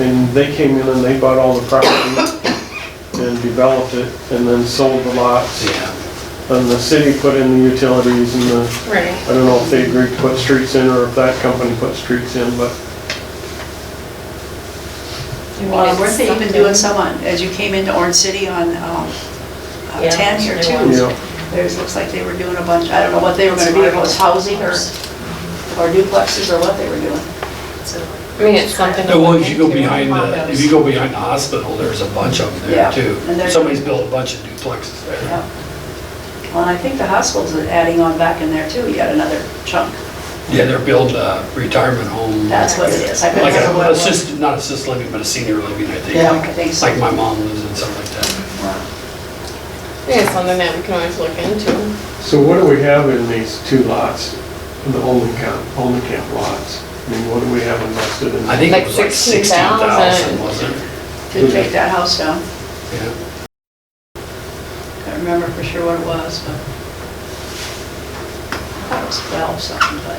And they came in and they bought all the property and developed it and then sold the lots. Yeah, And the city put in the utilities and the, Right. I don't know if they agreed to put streets in or if that company put streets in, but Well, Uh, weren't they even doing some on, as you came into Orange City on um, uh, Yeah, 10 here there too? was. Yeah. There's, looks like they were doing a bunch, I don't know what they were gonna do, if it was housing or, or duplexes or what they were doing. I mean, it's something. to the look ones you go into. behind the, if you go behind the hospital, there's a bunch of them Yeah, there too. and there's- Somebody's built a bunch of duplexes there. Yeah. Well, and I think the hospital's adding on back in there too, yet another chunk. Yeah, they're building a retirement home, like That's what it is. I couldn't remember what a it was. assisted, not assisted living, but a senior living, I think. Yeah, like- I think so. Like my mom lives in something like that. I think it's something that we can always look into. So what do we have in these two lots, the only camp, only camp lots? I mean, what do we have invested in? I think it Like was like sixteen 16,000. thousand, wasn't it? Did take that house down. Yeah. Can't remember for sure what it was, but I thought it was 12 something, but,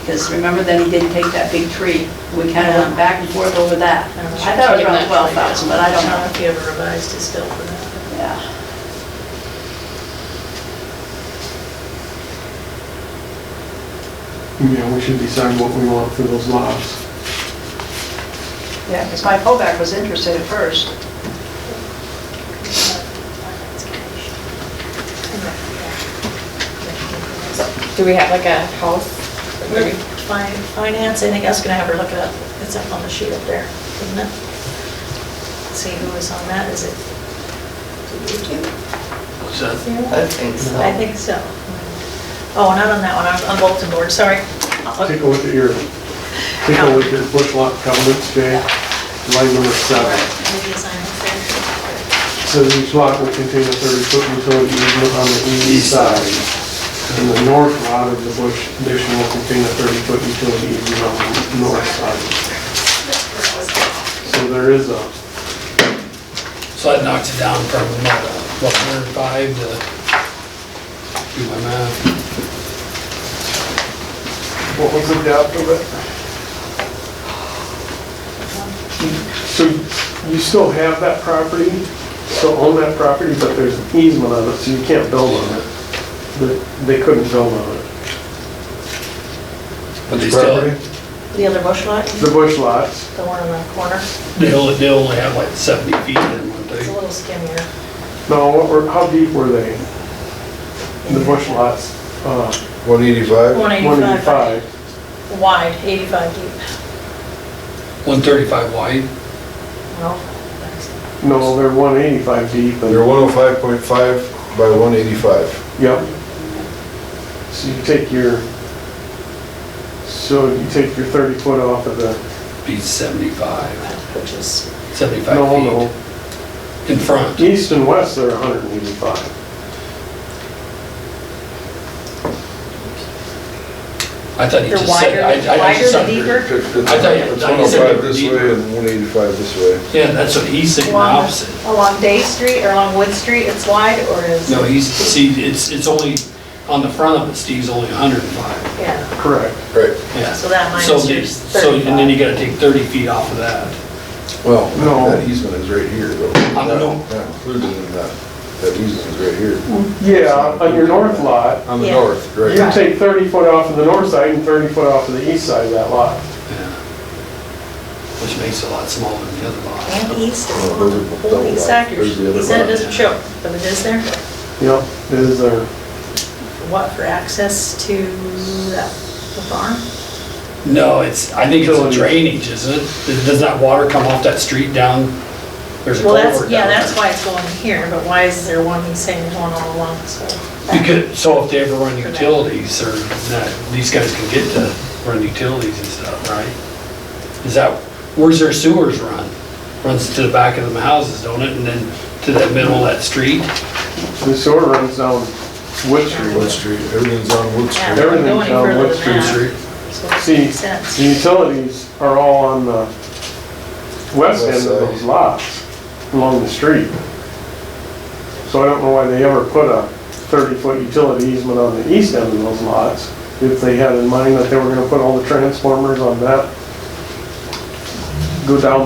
because remember then he didn't take that big tree. We kind of went back and forth over that. I thought it was around 12,000, but I don't know. if he ever revised his bill for that. Yeah, You know, we should decide what we want for those lots. yeah, because my pullback was interested at first. Do we have like a house? We're- fin- Finance, I think I was gonna have her look it up. It's up on the sheet up there, isn't it? See who was on that, is it? So, I think so. I think so. Oh, not on that one, I'm on bulletin board, sorry. Uh, Take a look at your, take a look at bush lot covenants, Jay. Line number seven. Maybe it's on there. Says each lot will contain a thirty-foot utility easement on the east side. And the north lot of the bush addition will contain a thirty-foot utility easement on the north side. So there is a, so that knocks it down from about, what, hundred and five to, do my math, What was the depth of it? so you still have that property, still own that property, but there's an easement on it, so you can't build on it. They- They couldn't build on it. but they still, Property? The other bush lot, The bush lots. the one on the corner, they only, they only have like seventy feet in one it's a thing. little skinnier. No, what were, how deep were they? The bush lots, uh, 185? One eighty-five 185. wide, eighty-five deep. One thirty-five wide, Well, that's- No, they're 185 deep. They're and- 105.5 by 185. Yep. So you take your, so you take your 30 foot off of the, be seventy-five, Which is, no, seventy-five no. feet in front. East and west, they're 185. I thought you they're just said. wider, I- I just wider the said- deeper. I thought you- It's I thought you said 105 this deep. way and 185 this way. Yeah, that's what he's saying, the Along- opposite. Along Day Street or along Wood Street, it's wide or is? No, he's, see, it's, it's only, on the front of it, Steve's only hundred and five. Yeah, Correct. Right, Yeah. So that minus So they- yours, So, and then you gotta take thirty feet off of that. well, No. that easement is right here though. I don't know. Not included in that, that easement is right here. Yeah, on your north lot, On the Mm. Yeah. north, you right. take 30 foot off of the north side and 30 foot off of the east side of that lot. Yeah. Which makes it a lot smaller than the other lot. and east is Oh, those are one, double holy wide. stackers. There's the other He said it one. doesn't show, but it is there. Yep, this is their, What, for access to that- the farm? No, it's, I think it's a Utilities. drainage, isn't it? Does- Does that water come off that street down? There's a Well, culvert down that's, yeah, there. that's why it's going here, but why is there one he's saying going all along this way? Because, so if they ever run utilities, or that, these guys can get to run utilities and stuff, right? Is that, where's their sewers run? Runs to the back of the houses, don't it, and then to the middle of that street? the sewer runs down Wood Street. Wood Street, everything's on Wood Yeah, Street. we don't Everything's go any down further Wood than Street that. Street. So it See, makes sense. the utilities are all on the west end of those lots, along the street. So I don't know why they ever put a 30-foot utility easement on the east end of those lots, if they had in mind that they were gonna put all the transformers on that, go down